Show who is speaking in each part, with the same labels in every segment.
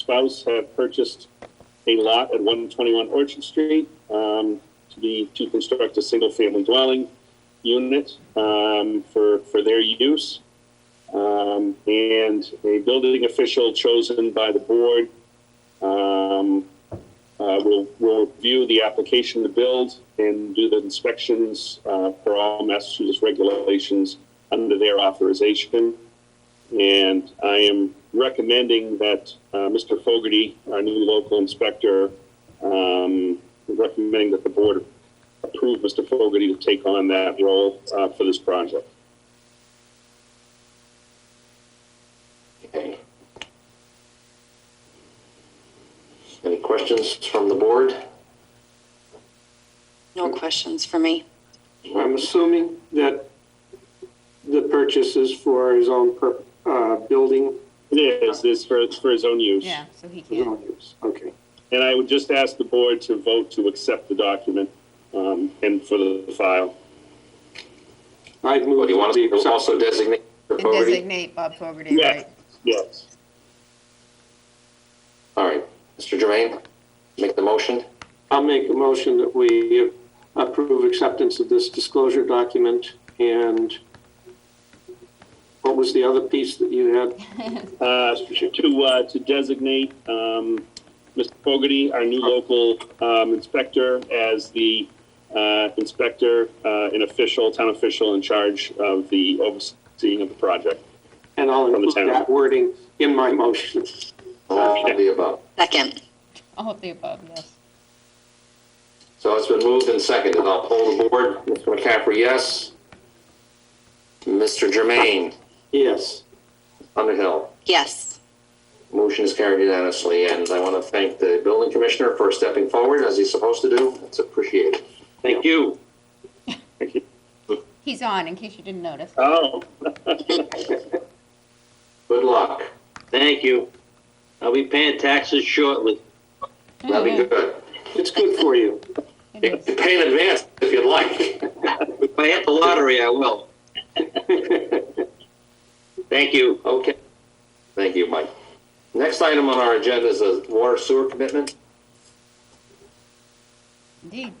Speaker 1: spouse have purchased a lot at 121 Orchard Street um, to be, to construct a single-family dwelling unit um, for, for their use. Um, And a building official chosen by the board um, uh, will, will review the application to build and do the inspections uh, for all Massachusetts regulations under their authorization. And I am recommending that uh, Mr. Fogarty, our new local inspector, um, recommending that the board approve Mr. Fogarty to take on that role uh, for this project.
Speaker 2: Okay. Any questions from the board?
Speaker 3: No questions for me.
Speaker 4: I'm assuming that the purchase is for his own per, uh, building,
Speaker 1: It is, it's for, it's for his own use.
Speaker 5: Yeah, so he
Speaker 4: his
Speaker 5: can't.
Speaker 4: own use, Oh, okay.
Speaker 1: And I would just ask the board to vote to accept the document um, and for the file.
Speaker 4: I'd
Speaker 2: Well,
Speaker 4: move
Speaker 2: do you
Speaker 4: to
Speaker 2: want us
Speaker 4: be
Speaker 2: to also
Speaker 4: accepted.
Speaker 2: designate for
Speaker 5: And
Speaker 2: Fogarty?
Speaker 5: designate Bob Fogarty,
Speaker 1: Yes,
Speaker 5: right?
Speaker 1: yes.
Speaker 2: All right, Mr. Jermaine, make the motion.
Speaker 4: I'll make a motion that we approve acceptance of this disclosure document and what was the other piece that you had?
Speaker 1: Uh, to, uh, to designate, um, Mr. Fogarty, our new local, um, inspector, as the, uh, inspector, uh, an official, town official in charge of the overseeing of the project.
Speaker 4: And I'll
Speaker 1: the
Speaker 4: include
Speaker 1: town.
Speaker 4: that wording in my motion.
Speaker 2: All of Uh, the above.
Speaker 3: Second.
Speaker 5: All of the above, yes.
Speaker 2: So it's been moved and seconded. I'll poll the board. Mr. McCaffrey, yes. Mr. Jermaine,
Speaker 4: Yes,
Speaker 2: Underhill.
Speaker 3: Yes.
Speaker 2: Motion is carried unanimously, and I want to thank the building commissioner for stepping forward as he's supposed to do. It's appreciated.
Speaker 1: Thank you.
Speaker 5: He's on, in case you didn't notice.
Speaker 1: Oh,
Speaker 2: Good luck.
Speaker 6: Thank you. I'll be paying taxes shortly.
Speaker 2: That'll be good.
Speaker 4: it's good for you.
Speaker 5: It
Speaker 2: You
Speaker 5: is.
Speaker 2: can pay in advance if you'd like.
Speaker 6: If I hit the lottery, I will. Thank you.
Speaker 2: Okay. Thank you, Mike. Next item on our agenda is a water sewer commitment.
Speaker 5: Indeed.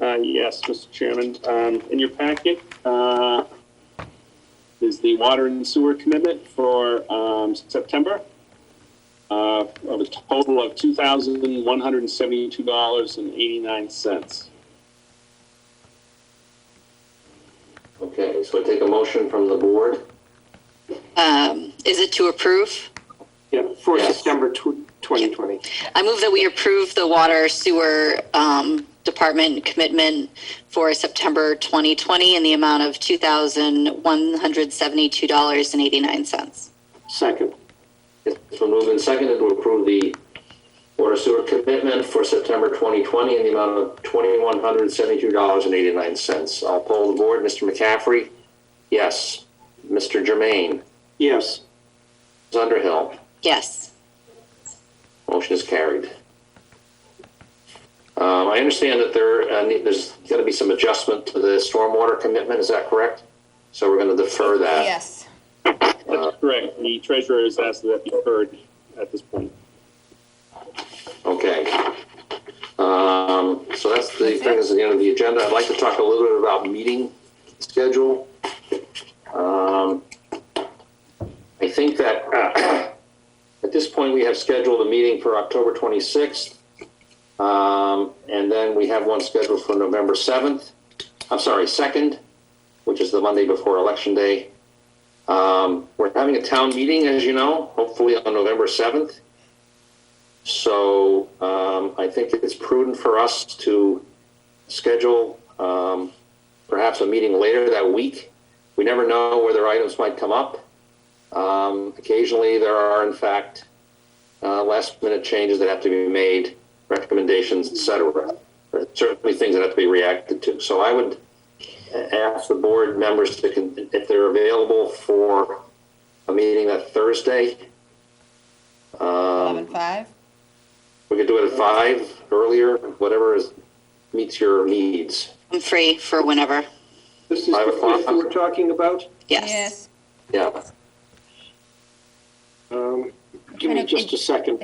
Speaker 1: uh, yes, Mr. Chairman, um, in your packet, uh, is the water and sewer commitment for, um, September, uh, of a total of two thousand one hundred and seventy-two dollars and eighty-nine cents.
Speaker 2: Okay, so I take a motion from the board.
Speaker 3: Um, is it to approve?
Speaker 4: Yeah, for
Speaker 2: Yes.
Speaker 4: September tw- 2020.
Speaker 3: I move that we approve the water sewer um, department commitment for September 2020 in the amount of $2,172.89.
Speaker 4: Second,
Speaker 2: It's been moved and seconded to approve the water sewer commitment for September 2020 in the amount of $2,172.89. I'll poll the board. Mr. McCaffrey? Yes. Mr. Jermaine?
Speaker 4: yes.
Speaker 2: Ms. Underhill?
Speaker 3: Yes.
Speaker 2: Motion is carried. Um, I understand that there, uh, ne- there's going to be some adjustment to the stormwater commitment, is that correct? So we're going to defer that.
Speaker 5: Yes.
Speaker 1: That's correct. The treasurer has asked that that be heard at this point.
Speaker 2: Okay. Um, so that's the thing is at the end of the agenda. I'd like to talk a little bit about meeting schedule. Um, I think that uh, at this point, we have scheduled a meeting for October 26th. Um, and then we have one scheduled for November 7th. I'm sorry, 2nd, which is the Monday before Election Day. Um, we're having a town meeting, as you know, hopefully on November 7th. So um, I think it's prudent for us to schedule um, perhaps a meeting later that week. We never know whether items might come up. Um, Occasionally, there are, in fact, uh, last-minute changes that have to be made, recommendations, et cetera. There are Certainly, things that have to be reacted to. So I would ask the board members to, con- if they're available for a meeting that Thursday.
Speaker 5: Eleven
Speaker 2: um,
Speaker 5: five.
Speaker 2: we could do it at five earlier, whatever is, meets your needs.
Speaker 3: I'm free for whenever.
Speaker 4: This is
Speaker 2: Five
Speaker 4: the
Speaker 2: o'clock.
Speaker 4: piece we're talking about?
Speaker 3: Yes.
Speaker 5: Yes.
Speaker 2: Yeah.
Speaker 4: Um, Give me
Speaker 5: Kind of-
Speaker 4: Um, just a second.